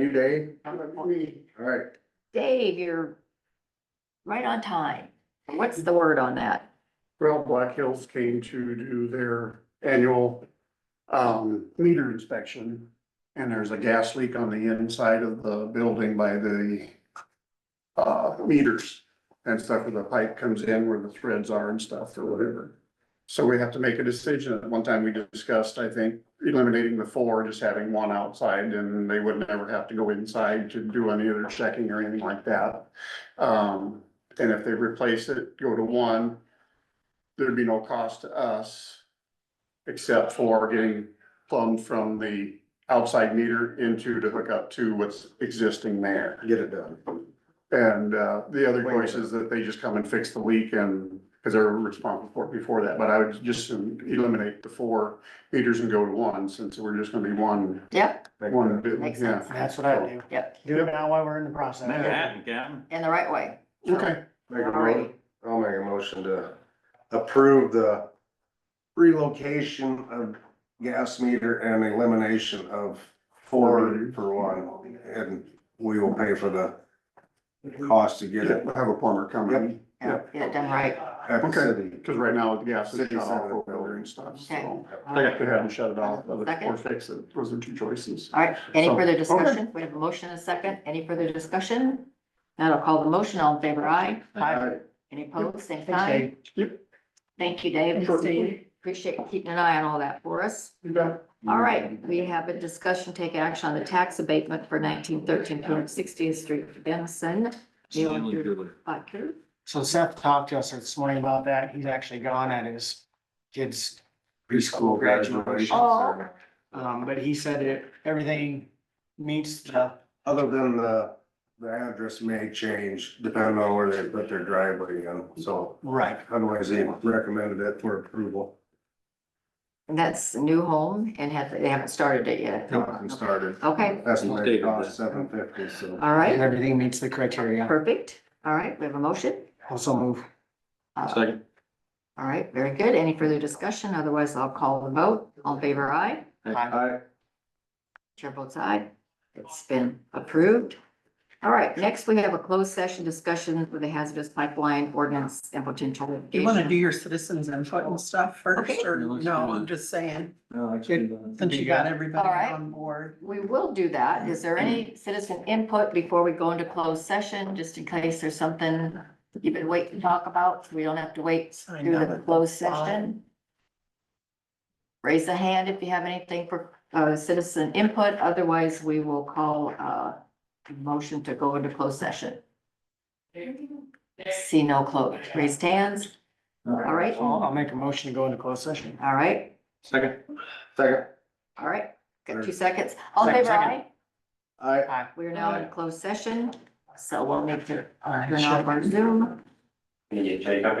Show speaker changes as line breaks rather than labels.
You, Dave?
I'm appointed.
All right.
Dave, you're right on time. What's the word on that?
Well, Black Hills came to do their annual um meter inspection. And there's a gas leak on the inside of the building by the uh meters and stuff where the pipe comes in where the threads are and stuff or whatever. So we have to make a decision. At one time we discussed, I think, eliminating the four, just having one outside and they would never have to go inside to do any other checking or anything like that. Um, and if they replace it, go to one, there'd be no cost to us. Except for getting plumbed from the outside meter into to hook up to what's existing there.
Get it done.
And, uh, the other
Wait.
choice is that they just come and fix the leak and, cause they're responsible for it before that, but I would just eliminate the four meters and go to one, since we're just gonna be one,
Yep,
Make
one, bit-
Makes
yeah.
sense.
That's what I do.
yep,
Do it now while we're in the process.
Make it happen, Captain.
in the right way.
Okay,
a- Make a
Alrighty.
mo- I'll make a motion to approve the relocation of gas meter and elimination of four for one. And we will pay for the cost to get
yeah,
it
we'll have a plumber come in,
Yeah, Get it done right.
at the
Okay.
city.
cause right now the gas is
City
shut off
center.
over there and stuff, so.
Okay.
They have to have them shut it off, or
Second.
fix it, those are two choices.
All right, any
So,
further
okay.
discussion? We have a motion and a second. Any further discussion? Now I'll call the motion. All in favor, aye.
Hi.
Any opposed, same
Thanks,
sign.
Dave.
Thank you, Dave.
Thanks, Dave.
Appreciate you keeping an eye on all that for us.
You bet.
All right, we have a discussion, take action on the tax abatement for nineteen thirteen, two hundred sixtieth Street, Benson. Neil,
Stanley
you're-
Dooley.
Bakker.
So Seth talked to us this morning about that. He's actually gone at his kid's preschool graduation.
Oh.
Um, but he said it, everything meets the,
Other than the, the address may change depending on where they put their driveway in, so
right.
otherwise they recommended it for approval.
That's a new home and have, they haven't started it yet.
Nothing started.
Okay,
That's what they
Stated that.
cost, seven fifty, so.
all
And
right,
everything meets the criteria.
perfect. All right, we have a motion.
Also move.
Uh,
Second.
All right, very good. Any further discussion? Otherwise, I'll call the vote. All in favor, aye.
Hi.
I,
Chair votes aye. It's been approved. All right, next we have a closed session discussion for the hazardous pipeline ordinance and potential
Do you want to do
litigation.
your citizens input and stuff
Okay.
first, or
Yeah, let's
no,
do
I'm
it.
just saying,
No,
since you got everybody
All right.
on board.
We will do that. Is there any citizen input before we go into closed session, just in case there's something you've been waiting to talk about? We don't have to wait
I
through
know,
the
but
closed
that's fine.
session. Raise a hand if you have anything for uh, citizen input, otherwise we will call uh, a motion to go into closed session. See no close, raised hands, all right,
I'll, I'll make a motion to go into closed session.
all right,
Second.
second,
all right, got two seconds, all in favor,
Second.
aye?
I.
We are now in closed session, so we'll need to
All right.
turn off our Zoom.